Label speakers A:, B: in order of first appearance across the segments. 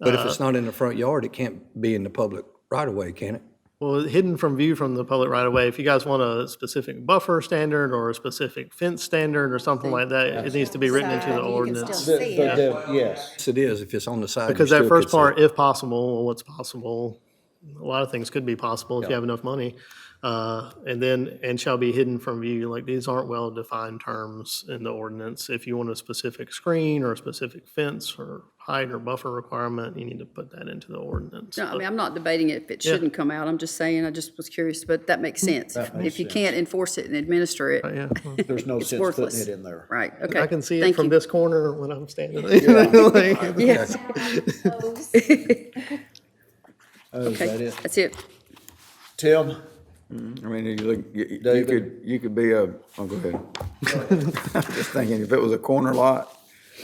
A: But if
B: Uh,
A: it's not in the front yard, it can't be in the public right of way, can it?
B: Well, hidden from view from the public right away. if you guys want a specific buffer standard or a specific fence standard or something like that, it needs to be written into the
C: Side, you can still
B: ordinance.
C: see
D: The-
C: it.
D: the- the- Yes.
A: Yes, it is, if it's on the side. you
B: Because that
A: still
B: first
A: could see it.
B: part, if possible, or what's possible, a lot of things could be possible if you have enough money. Uh, And then, and shall be hidden from view, like these aren't well-defined terms in the ordinance. If you want a specific screen or a specific fence or height or buffer requirement, you need to put that into the ordinance.
C: No, I mean, I'm not debating if it shouldn't come out. I'm just saying, I just was curious, but that makes
D: Hmm.
C: sense. If- If you can't enforce it and administer it,
B: Yeah, well,
D: There's no sense putting
C: worthless.
D: it in there.
C: right, okay.
B: I can see it
C: Thank
B: from
C: you.
B: this corner when I'm standing there. Like-
C: Yes,
D: Oh, is that
C: okay,
D: it?
C: that's it.
D: Tim,
E: I mean, you look, you- you, you
D: David?
E: could, you could be a, oh, go ahead. I'm Just thinking, if it was a corner lot,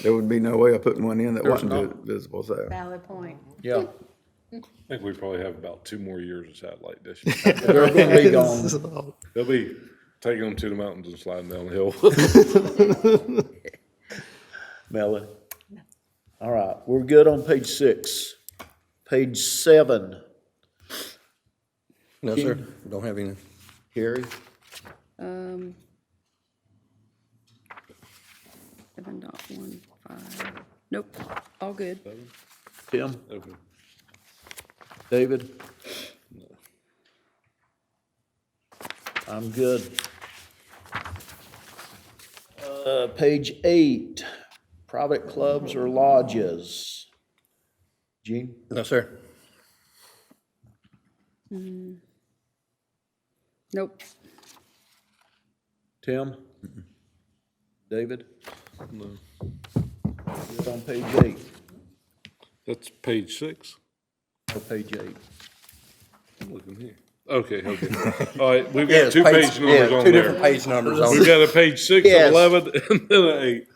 E: there would be no way of putting one in that wasn't
D: not.
E: vi- visible, so.
C: Valid point.
D: yeah,
F: I think we probably have about two more years of satellite dishes.
D: they're gonna be gone.
F: They'll be taking them to the mountains and sliding down the hill.
D: Melanie? All right, we're good on page six. Page seven,
A: No, sir, don't have any.
D: Carrie?
C: Um, Seven dot one five, nope, all good.
D: Tim?
F: Okay.
D: David? I'm good. Uh, page eight, private clubs or lodges. Gene?
A: No, sir.
C: Nope,
D: Tim? David? Good on page eight,
F: That's page six.
D: or page eight.
F: I'm looking here. Okay, okay. All right, we've
A: Yeah,
F: got two
A: page-
F: page numbers
A: yeah,
F: on
A: Two different
F: there.
A: page numbers on
F: We've
A: it.
F: got a page six,
D: Yes.
F: an eleven, and then an eight.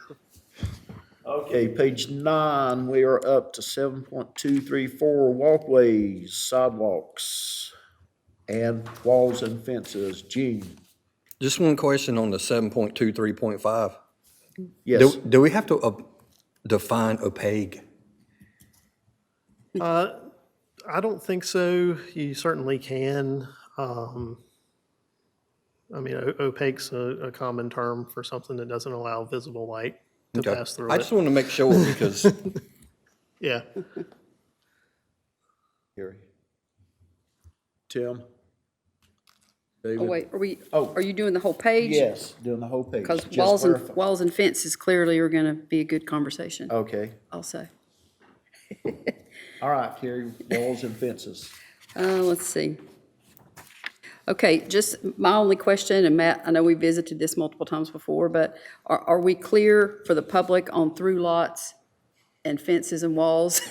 D: Okay, page nine, we are up to seven point two three four walkways, sidewalks, and walls and fences. Gene?
A: Just one question on the seven point two, three point five.
D: Yes,
A: Do, do we have to uh, define opaque?
B: I don't think so. You certainly can. Um, I mean, o- opaque's a, a common term for something that doesn't allow visible light to
A: Okay.
B: pass through
A: I
B: it.
A: just want to make sure because
B: Yeah.
D: Gary? Tim?
C: oh
D: David?
C: wait, are we,
D: Oh.
C: are you doing the whole page?
D: Yes, doing the whole page.
C: Because
D: Just
C: walls and,
D: clarify.
C: walls and fences clearly are gonna be a good conversation,
D: Okay,
C: I'll say.
D: all right, Gary, walls and fences.
C: Uh, let's see. Okay, just my only question, and Matt, I know we visited this multiple times before, but are, are we clear for the public on through lots and fences and walls?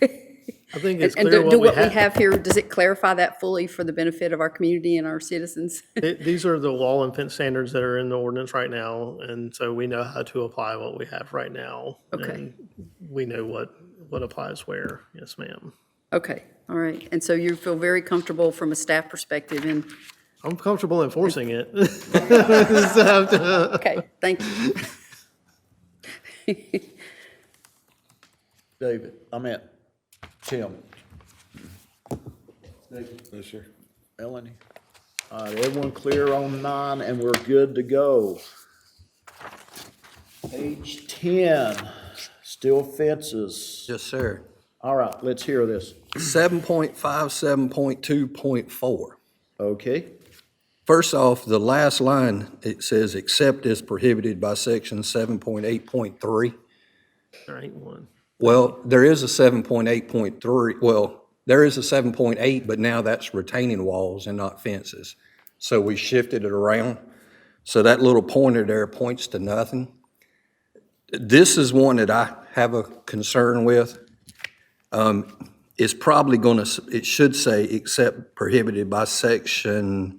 B: I think
C: And
B: it's
C: and
B: clear
C: do do
B: what we
C: what we
B: have.
C: have here, does it clarify that fully for the benefit of our community and our citizens?
B: Th- These are the wall and fence standards that are in the ordinance right now. And so we know how to apply what we have right now.
C: Okay.
B: and We know what, what applies where. Yes, ma'am.
C: Okay, all right. And so you feel very comfortable from a staff perspective and,
B: I'm comfortable enforcing it.
C: okay, thank you.
D: David, I meant, Tim? David?
F: Yes, sir.
D: Melanie. All right, everyone clear on nine, and we're good to go. Page ten, still fences.
A: yes, sir.
D: All right, let's hear this.
A: Seven point five, seven point two, point four.
D: Okay,
A: First off, the last line, it says, except as prohibited by section 7.8.3.
B: There ain't one.
A: Well, there is a 7.8.3, well, there is a 7.8, but now that's retaining walls and not fences. So we shifted it around. So that little pointer there points to nothing. This is one that I have a concern with. Um, It's probably going to, it should say, except prohibited by section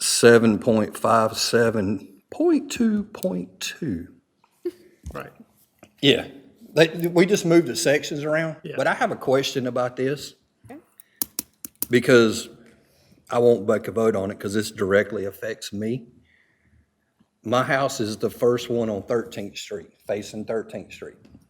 A: 7.57.2.2.
B: Right.
A: Yeah. They, we just moved the sections around, but I have a question about this. Because I won't make a vote on it because this directly affects me. My house is the first one on Thirteenth Street, facing Thirteenth Street.